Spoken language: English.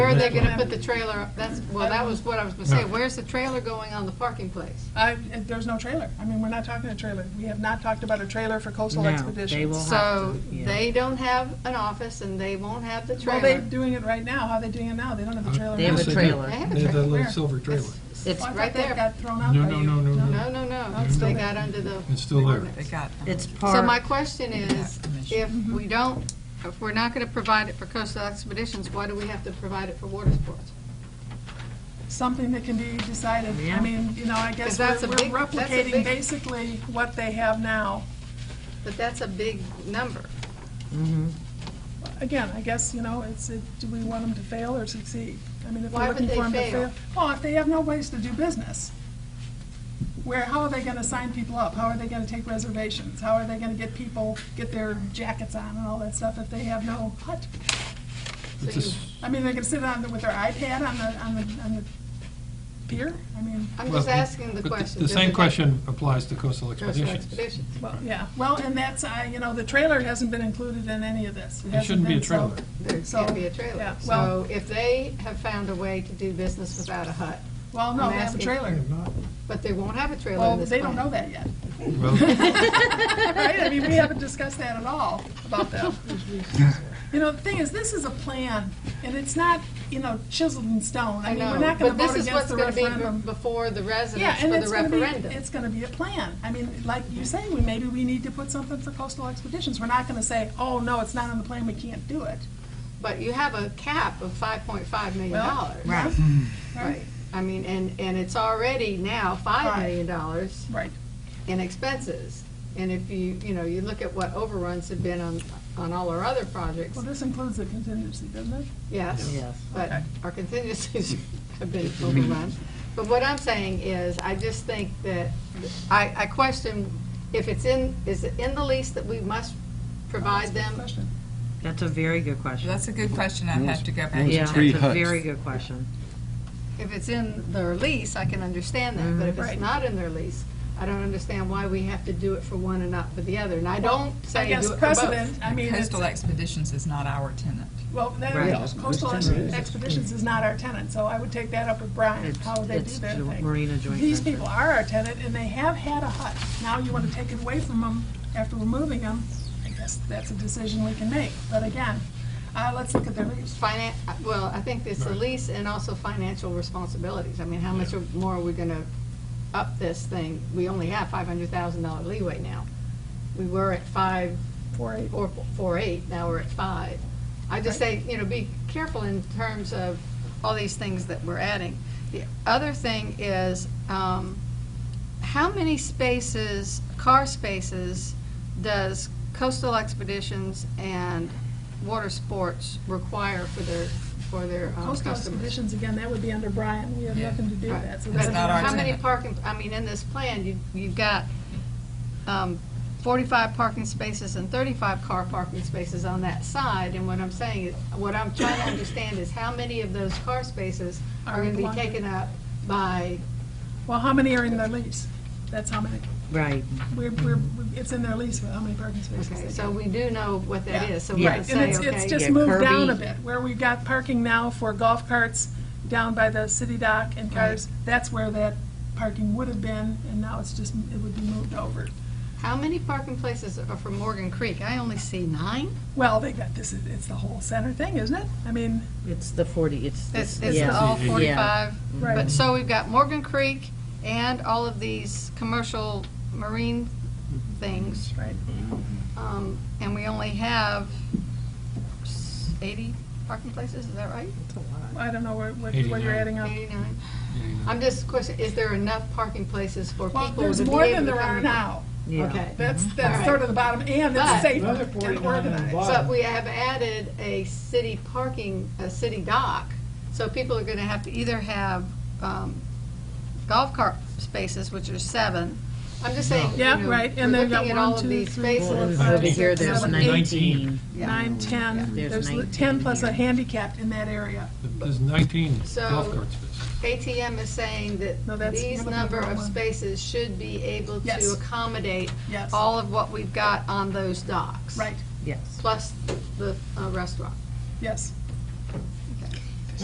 they're gonna put the trailer, up. that's, well, that was what I was gonna say, where's the trailer going on the parking place? I, it- there's no trailer. I mean, we're not talking a trailer. We have not talked about a trailer for coastal No, they expeditions. will- We'll have So, to, yeah. they don't have an office and they won't have the Well, they're trailer. doing it right now. How are they doing it now? They don't have a trailer. Uh, They have a now. Yes, trailer. They have a They have that Where? little silver trailer. It's, Oh, I right thought there. that got thrown out No, by no, you. no, no, no. No, no, no, That's they the- got under the. It's still there. They got them. it's So my part, question is, if we don't, if we're not gonna provide it for coastal expeditions, why do we have to provide it for water sports? Something that can be decided. I Yeah. mean, you know, I guess 'Cause we're that's a we're big- that's a replicating big- basically what they have now. But that's a big number. Again, I guess, you know, it's, it- do we want them to fail or succeed? I mean, if Why we're would looking they for them to fail? fail. Well, if they have no ways to do business, where, how are they gonna sign people up? How are they gonna take reservations? How are they gonna get people, get their jackets on and all that stuff if they have no hut? So It's a you, s- I mean, they can sit on, the- with their iPad on the, on the, on the pier? I mean, I'm well, just asking the but question. The does same it- question applies to coastal Coastal expeditions. expeditions. well, yeah, well, and that's, I, you know, the trailer hasn't been included in any of this. It shouldn't be a trailer. There So, can't be a trailer. yeah, So well- if they have found a way to do business without a hut, Well, no, I'm they have a asking- trailer. but they won't have a trailer Well, in this they plan. don't know that yet. Well, Right, I mean, we haven't discussed that at all about them. You know, the thing is, this is a plan, and it's not, you know, chiseled in stone. I mean, know, we're not gonna but this vote is against what's the gonna be referendum. be- Before the Yeah, residents for and the it's gonna referendum. be, it's gonna be a plan. I mean, like you say, we, maybe we need to put something for coastal expeditions. We're not gonna say, oh, no, it's not on the plan, we can't do it. But you have a cap of five point five million Well, dollars. right, Right. I mean, and, and it's already now five Right. million dollars Right. in expenses. And if you, you know, you look at what overruns have been on, on all our other projects, Well, this includes the contingency, doesn't it? yes. yes. But Okay. our contingencies have been overrun. But what I'm saying is, I just think that, I, I question if it's in, is it in the lease that we must provide them? Question. That's a very good question. That's a good question. I have to go back Yeah, and that's check. a very good question. If it's in their lease, I can understand that, but if it's Right. not in their lease, I don't understand why we have to do it for one and not for the other. And I don't I say do it guess for both. precedent, I mean, it's, Coastal Expeditions is not our tenant. well, that- Right. coastal expeditions is not our tenant, so I would take that up with Brian, It's, how would they do it's their jo- thing. Marina joint These venture. people are our tenant, and they have had a hut. Now you want to take it away from them after removing them, I guess that's a decision we can make. But again, uh, let's look at their lease. Finan, well, I think it's the lease and also financial responsibilities. I mean, how much more are we gonna up this thing? We only have five hundred thousand dollar leeway now. We were at five Four eight. or four eight, now we're at five. I just say, you know, be careful in terms of all these things that we're adding. The other thing is, um, how many spaces, car spaces, does coastal expeditions and water sports require for their, for their um, Coastal customers? expeditions, again, that would be under Brian. We have Yeah. nothing to do with that. So But that's That's not our How many tenant. parking, I mean, in this plan, you, you've got, um, forty-five parking spaces and thirty-five car parking spaces on that side, and what I'm saying, is what I'm trying to understand is how many of those car spaces are Are gonna be belonging. taken up by, Well, how many are in their lease? That's how many. Right, We're, we're, it's in their lease, how many parking spaces okay, they so get. we do know what that Yeah. is, so we Right. can And say, it's, it's okay, just Yeah, moved down a Kirby. bit, where we've got parking now for golf carts down by the city dock and cars. That's where that parking would have been, and now it's just, it would be moved over. how many parking places are for Morgan Creek? I only see nine. Well, they got this, it's the whole center thing, isn't it? I mean, it's the 40, it's It's, this, it's yeah. all yeah. forty-five. But, right, so we've got Morgan Creek and all of these commercial marine things. right. Um, and we only have s- eighty parking places, is that right? I don't know where, what- where you're adding up. Eighty-nine? I'm just questioning, is there enough parking places for people Well, to be able to there's come? more than there are in? now. Yeah. Okay. That's, All that's right. sort of the bottom, and it's But- safe Another and 49 organized. involved. But we have added a city parking, a city dock, so people are gonna have to either have, um, golf cart spaces, which are seven. I'm just saying, you Yeah, know, right, we're and they've looking at got one, all of two, these three, spaces. four, five, Over here, six, there's seven, eight, 19. Yeah. Nine, ten, There's there's li- 19 ten plus a here. handicapped in that area. there's 19 So- golf cart spaces. ATM is saying No, that that's- these you're looking number at the wrong of one. spaces should be able to Yes. accommodate Yes. all of what we've got on those docks. Right, Yes, Plus the uh, restaurant. yes.